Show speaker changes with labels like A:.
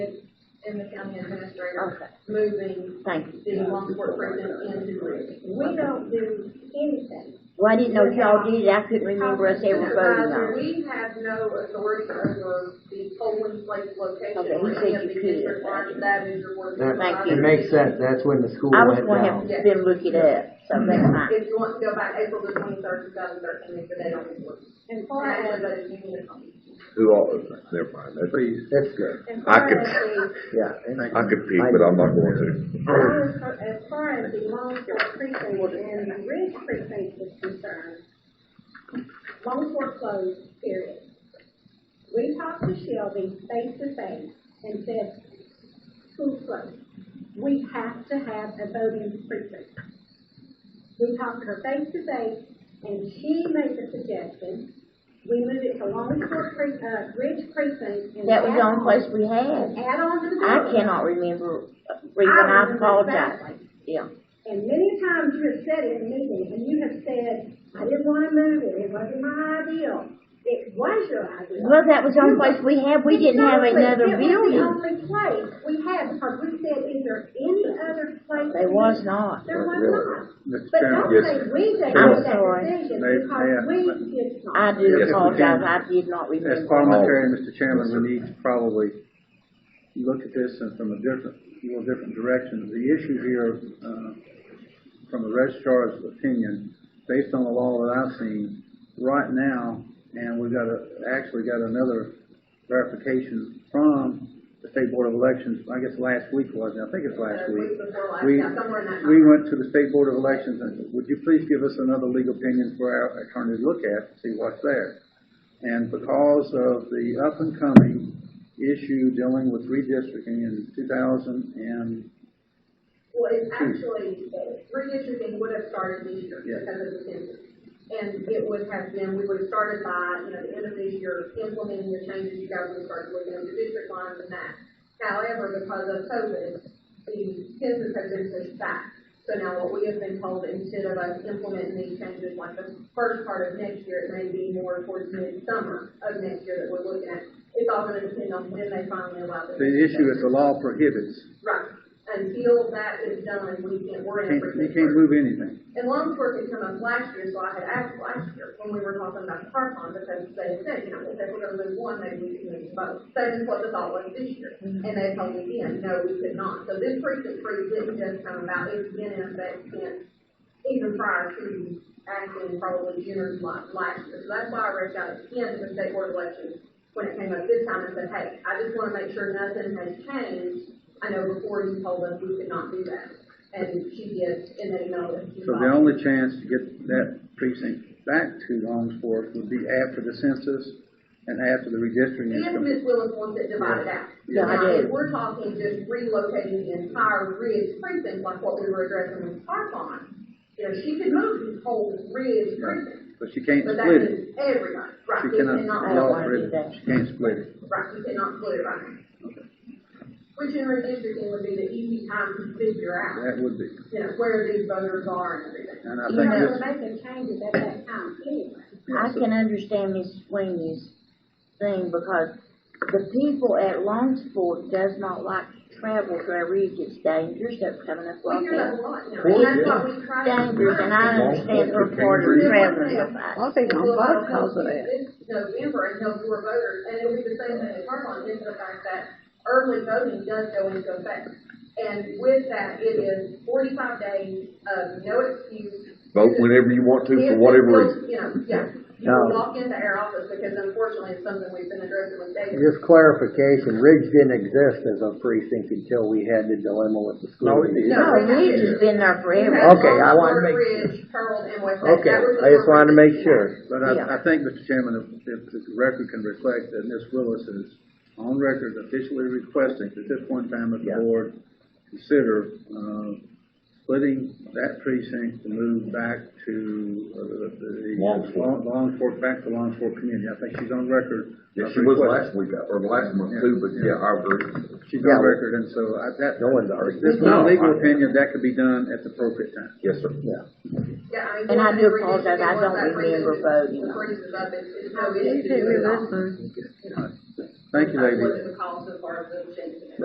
A: is in the county administrator
B: Okay,
A: moving
B: thank you.
A: the Longport prison into Ridge. We don't do anything.
B: Well, I didn't know if y'all did, I couldn't remember us ever voting
A: Supervisor,
B: on it.
A: We have no authority over the polling place location
B: Okay,
A: or
B: he
A: any
B: said
A: of
B: you
A: the
B: could.
A: district lines. That is your board.
C: That-
B: Thank you.
C: It
A: supervisor.
C: makes sense, that's when the school
B: I was
C: went
B: gonna have to
C: down.
B: then look it up, so that's fine.
A: If you want to go back April the twenty-third, two thousand thirteen, is the date on this list.
D: And far
A: That
D: as,
A: was a uniform.
E: Who all, never mind, that's,
C: Please, that's good,
D: and
E: I
D: far
E: could-
D: as the,
C: yeah.
E: I could peek, but I'm not going to.
D: as far- as far as the Longport precinct and the Ridge precinct is concerned, Longport closed, period. We talked to Shelby face to face and said, school closed. We have to have a voting precinct. We talked to her face to face and she made the suggestion, we move it to Longport pre, uh, Ridge precinct and.
B: That was the
D: add
B: only
D: on-
B: place we had.
D: Add on to the.
B: I
D: voting.
B: cannot remember, uh, reason I apologize, yeah.
D: And many times you have said in meetings, and you have said, I didn't wanna move it, it wasn't my ideal. It was your ideal.
B: Well, that was the only place we had, we didn't have
D: Exactly.
B: another
D: It
B: building.
D: was the only place we had, because we said, is there any other place?
B: There was not.
D: There was not.
F: Mr.
D: But
F: Chairman.
D: don't say we gave
B: I'm
D: up
B: sorry.
D: that decision,
F: May- may I-
D: because we did not.
B: I do
E: Yes, we
B: apologize,
F: can.
B: I did not
F: As
B: remember.
F: parliamentarian, Mr. Chairman, we need to probably look at this and from a different, more different direction. The issue here, uh, from the registrar's opinion, based on the law that I've seen, right now, and we've got a, actually got another verification from the State Board of Elections, I guess last week was, I think it's last
A: Uh,
F: week.
A: week before last,
F: We-
A: yeah, somewhere in that
F: We went to the State Board of Elections and, would you please give us another legal opinion for our attorney to look at, see what's there? And because of the up and coming issue dealing with redistricting in two thousand and
A: Well, it's actually, uh, redistricting would have started this year
F: Hmm. Yeah.
A: because of the census. And it would have been, we would have started by, you know, the end of this year, implementing the changes, you guys would have started looking at the district lines and that. However, because of COVID, the census has been pushed back. So now what we have been told, instead of us implementing these changes like the first part of next year, it may be more towards mid-summer of next year that we're looking at. It's all gonna depend on when they finally allow the.
F: the issue is the law prohibits.
A: Right, until that is done, we can't, we're in a
F: Can't, you
A: precinct.
F: can't move anything.
A: And Longport had come up last year, so I had asked last year when we were talking about the park on, because they had said, you know, if they were gonna move one, maybe we could move both. That is what the thought was this year,
F: Mm-hmm.
A: and they told me then, no, we could not. So this precinct three didn't just come about, it's been in effect since, even prior to actually probably June or July last year. So that's why I reached out again to the state board of elections when it came up this time and said, hey, I just wanna make sure nothing has changed. I know before you told us we could not do that, and she did, and they know that she
F: So the only chance to get that precinct back to Longsport would be after the census and after the redistricting. is
A: If
F: complete.
A: Ms. Willis wants it divided out.
B: Yeah, I
A: Now, if
B: do.
A: We're talking just relocating the entire Ridge precinct, like what we were addressing with Park on. You know, she could move the whole Ridge precinct,
F: But she can't
A: but that
F: split it.
A: is everybody, right?
F: She
A: You
F: cannot,
B: I
F: the
B: don't
F: law
B: wanna do that.
F: prohibits, she can't split it.
A: Right, you cannot split it right now. Which in redistricting would be the easy time to figure out,
F: That would be.
A: you know, where these voters are and everything.
F: And I
D: You
F: think
D: know,
F: this,
D: making changes at that time anyway.
B: I can understand Ms. Sweeney's thing because the people at Longsport does not like to travel to our ridge, it's dangerous, they're coming up
A: We
B: like
A: hear that
B: that.
A: a lot, you know, and that's why we try to.
B: Dangerous, and I understand her part of traveling with us.
G: I'll be on both because of that.
A: It's November and no more voters, and it'll be the same thing at Carmont, is the fact that early voting does go into effect. And with that, it is forty-five days of no excuse.
E: Vote whenever you want to, for whatever reason.
A: You know, yeah, you
C: No.
A: can walk into our office, because unfortunately, it's something we've been addressing with David.
C: Just clarification, Ridge didn't exist as a precinct until we had the dilemma with the school.
F: No, it did.
B: No, Ridge has been there forever.
C: Okay, I wanted to make-
A: Ridge, Pearl, and West. Lake.
C: Okay,
A: That was the
C: I just
A: four
C: wanted to
A: regions.
C: make sure.
F: but
B: Yeah.
F: I, I think, Mr. Chairman, if- if the record can reflect that Ms. Willis is on record officially requesting at this point in time that the
C: Yeah.
F: board consider, uh, splitting that precinct to move back to, uh, the- the.
E: Longsport.
F: Longsport, back to Longsport community. I think she's on record.
E: Yeah,
F: of
E: she was
F: requesting-
E: last week, or last month too, but yeah, I agree.
F: She's
C: Yeah.
F: on record, and so I, that.
C: No one's arguing.
F: This is my
E: No,
F: legal
E: I-
F: opinion, that could be done at the appropriate time.
E: Yes, sir.
C: Yeah.
A: Yeah, I mean.
B: And I do
A: we're just-
B: apologize, I don't
A: we're just-
B: remember voting.
A: The freezes up, it's, it's no issue to do it all.
F: Thank you,
A: That's
F: ladies.
A: What it would cost as far as the change.